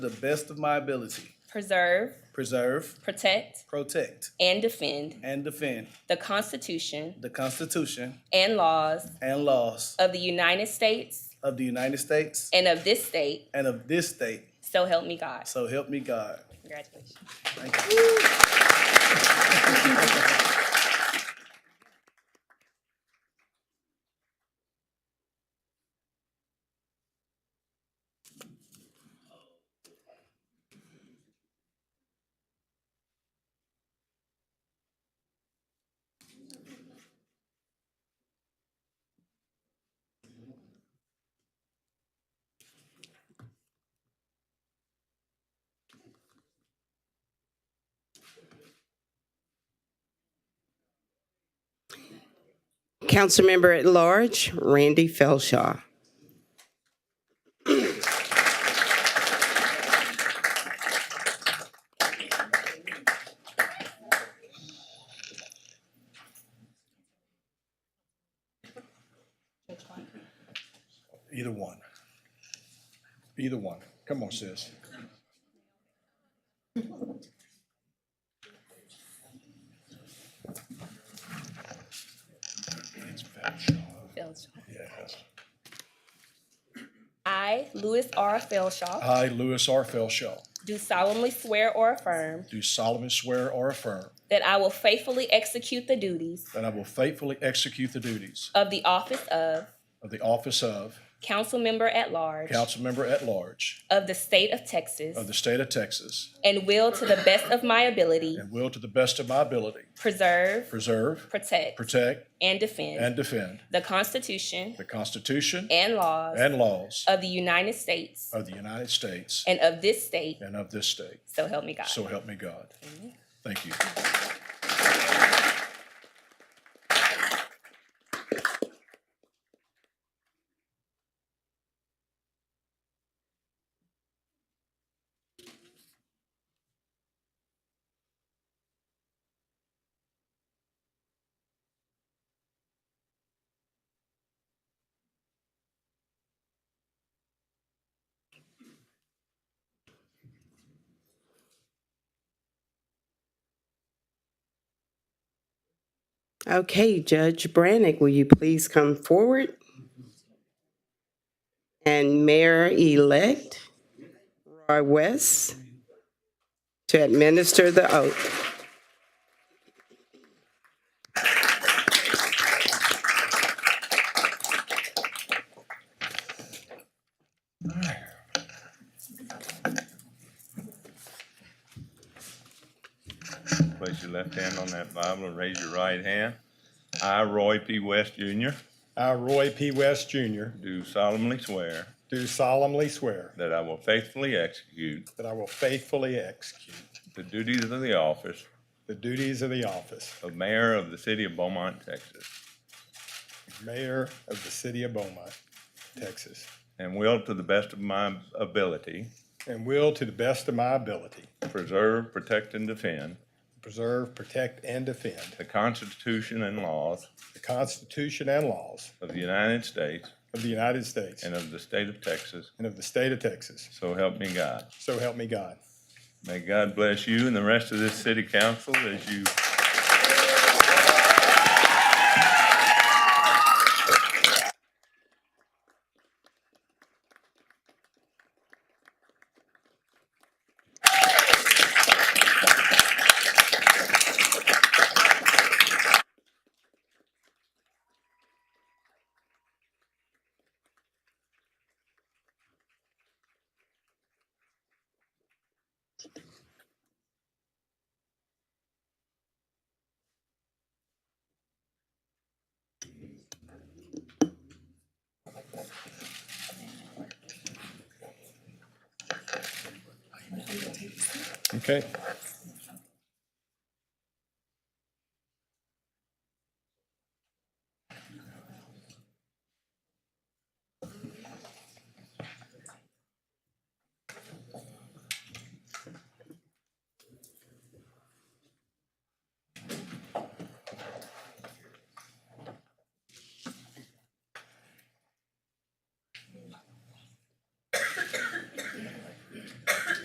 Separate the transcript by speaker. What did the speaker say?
Speaker 1: the best of my ability,
Speaker 2: preserve,
Speaker 1: preserve,
Speaker 2: protect,
Speaker 1: protect,
Speaker 2: and defend
Speaker 1: and defend
Speaker 2: the Constitution
Speaker 1: the Constitution
Speaker 2: and laws
Speaker 1: and laws
Speaker 2: of the United States
Speaker 1: of the United States
Speaker 2: and of this state,
Speaker 1: and of this state.
Speaker 2: so help me God.
Speaker 1: So help me God.
Speaker 2: Congratulations.
Speaker 1: Thank you.
Speaker 3: Councilmember at Large, Randy Felshaw.
Speaker 4: Either one. Either one. Come on, sis. It's Felshaw,
Speaker 2: Felshaw.
Speaker 4: yes.
Speaker 2: I, Louis R. Felshaw,
Speaker 4: I, Louis R. Felshaw,
Speaker 2: do solemnly swear or affirm
Speaker 4: do solemnly swear or affirm
Speaker 2: that I will faithfully execute the duties
Speaker 4: that I will faithfully execute the duties
Speaker 2: of the office of
Speaker 4: of the office of
Speaker 2: council member at large
Speaker 4: council member at large
Speaker 2: of the state of Texas
Speaker 4: of the state of Texas
Speaker 2: and will, to the best of my ability,
Speaker 4: and will to the best of my ability
Speaker 2: preserve,
Speaker 4: preserve,
Speaker 2: protect,
Speaker 4: protect,
Speaker 2: and defend
Speaker 4: and defend
Speaker 2: the Constitution
Speaker 4: the Constitution
Speaker 2: and laws
Speaker 4: and laws
Speaker 2: of the United States
Speaker 4: of the United States
Speaker 2: and of this state,
Speaker 4: and of this state.
Speaker 2: so help me God.
Speaker 4: So help me God. Thank you.
Speaker 3: Okay, Judge Brannick, will you please come forward? And Mayor-elect Roy West to administer the oath.
Speaker 5: Place your left hand on that Bible and raise your right hand. I, Roy P. West Jr.,
Speaker 4: I, Roy P. West Jr.,
Speaker 5: do solemnly swear
Speaker 4: do solemnly swear
Speaker 5: that I will faithfully execute
Speaker 4: that I will faithfully execute
Speaker 5: the duties of the office
Speaker 4: the duties of the office
Speaker 5: of Mayor of the City of Beaumont, Texas,
Speaker 4: of Mayor of the City of Beaumont, Texas,
Speaker 5: and will, to the best of my ability,
Speaker 4: and will, to the best of my ability,
Speaker 5: preserve, protect, and defend
Speaker 4: preserve, protect, and defend
Speaker 5: the Constitution and laws
Speaker 4: the Constitution and laws
Speaker 5: of the United States
Speaker 4: of the United States
Speaker 5: and of the state of Texas,
Speaker 4: and of the state of Texas.
Speaker 5: so help me God.
Speaker 4: So help me God.
Speaker 5: May God bless you and the rest of this city council as you
Speaker 4: Okay.